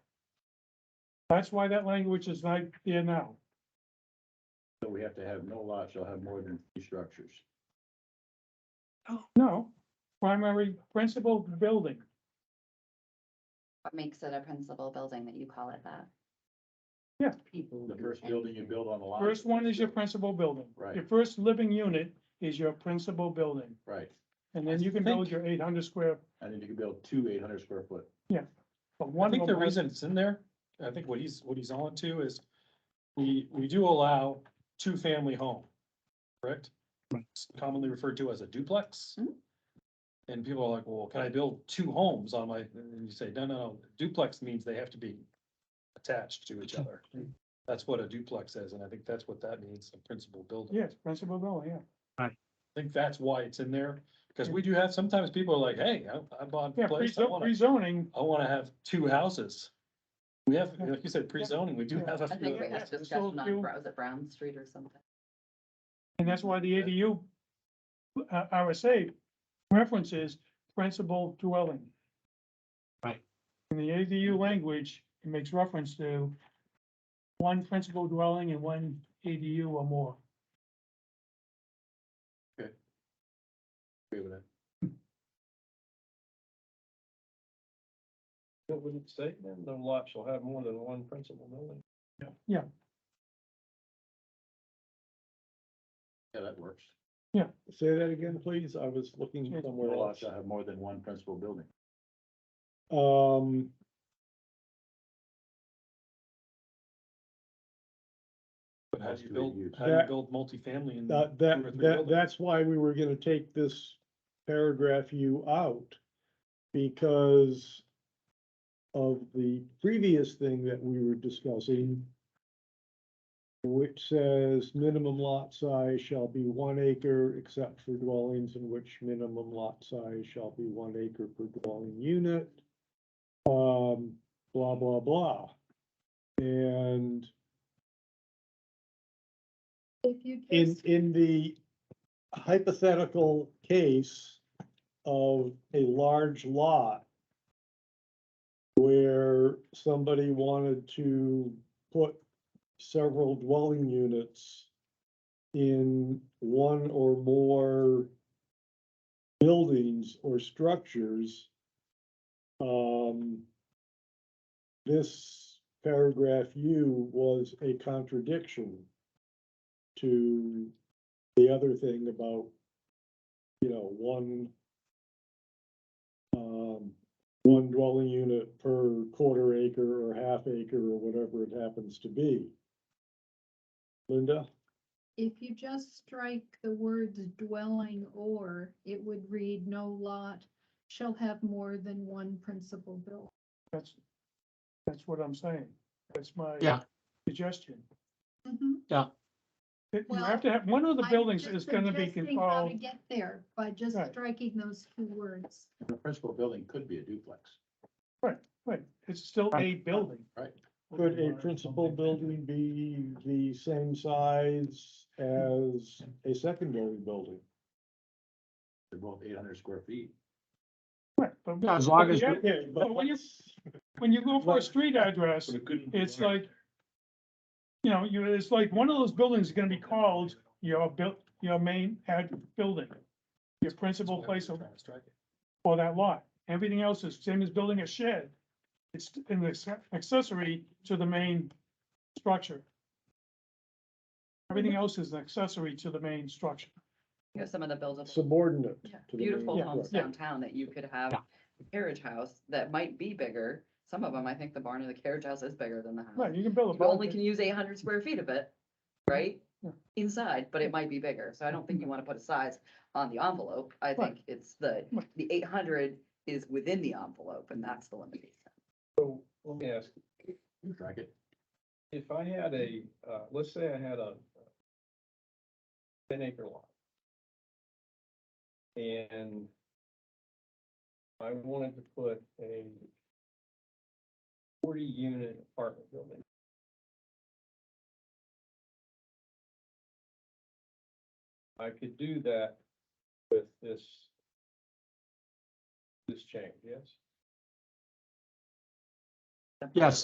That's why that language is not there now. So we have to have no lot shall have more than three structures. No, primary principal building. What makes it a principal building that you call it that? Yeah. People. The do first building you anything. build on the lot. First one is your principal building. Right. Your first living unit is your principal building, Right, and then you can build your eight hundred square, and then you can build two eight hundred square foot. but I one think of the them. reason it's in there, I think what he's, what he's on to is, we, we do allow two-family home, correct? It's Commonly referred to as a duplex. Mhm. Mm-hmm. And people are like, well, can I build two homes on my, and you say, no, no, no, duplex means they have to be attached to each other. That's what a duplex is, and I think that's what that means, a principal building. Yes, principal building, yeah. I think that's why it's in there, because we do have, sometimes people are like, hey, I, I bought Yeah, a pre- place, I wanna rezoning, I wanna have two houses. We have, like you said, pre-zoning, we do Yeah. have a I few think we of had those. so discussion you- on, Bro- was it Brown Street or something? and that's why the ADU uh, RSA references principal dwelling. Right. In the ADU language, it makes reference to one principal dwelling and one ADU or more. Agree with that. What would it say then? The lot shall have more than one principal building. Yeah, that works. Say that again, please. I was looking Yeah. No somewhere lot else. shall have more than one principal building. Um. But how do you Mostly build, used. how do you That- build multifamily in? That, two or that, three that, buildings? that's why we were gonna take this paragraph U out. Because of the previous thing that we were discussing. Which says minimum lot size shall be one acre except for dwellings in which minimum lot size shall be one acre per dwelling unit. Um, blah, blah, blah. And If you. in, in the hypothetical case of a large lot where somebody wanted to put several dwelling units in one or more buildings or structures, um, this paragraph U was a contradiction to the other thing about, you know, one um, one dwelling unit per quarter acre or half acre or whatever it happens to be. Linda? If you just strike the words dwelling or, it would read no lot shall have more than one principal building. That's, that's what I'm saying. That's my Yeah. suggestion. That You Well, have to have, one of the Mm-hmm. I'm buildings just is gonna be suggesting How to called, get there by just Right. striking those two words. The principal building could be a duplex. right, it's still a building. Right. Could a principal building be the same size as a secondary building? They're both eight hundred square feet. Right, but- Yeah, as long but as yeah, Okay, but when you- When you go for a street address, it's like, you know, you, it's like, one of those buildings is gonna be called your built, your main ad building. Your principal place of- Trying to strike it. for that lot. Everything else is same as building a shed. It's an acce- accessory to the main structure. Everything else is an accessory to the main structure. You have some of the buildable, Subordinate. Yeah. to the main beautiful Yeah. homes Yeah. downtown that you could have Yeah. a carriage house that might be bigger. Some of them, I think the barn or the carriage house is bigger than the Right, house. you can build a. You Oh. only building. can use eight hundred square feet of it, right? Yeah. Inside, but it might be bigger. So I don't think you wanna put a size on the envelope. I Right. think it's the, Right. the eight hundred is within the envelope and that's the limitation. So, Let me ask, Strike it. if I had a, uh, let's say I had a uh, ten acre lot. And I wanted to put a forty unit apartment building. I could do that with this, this change, yes? Yes.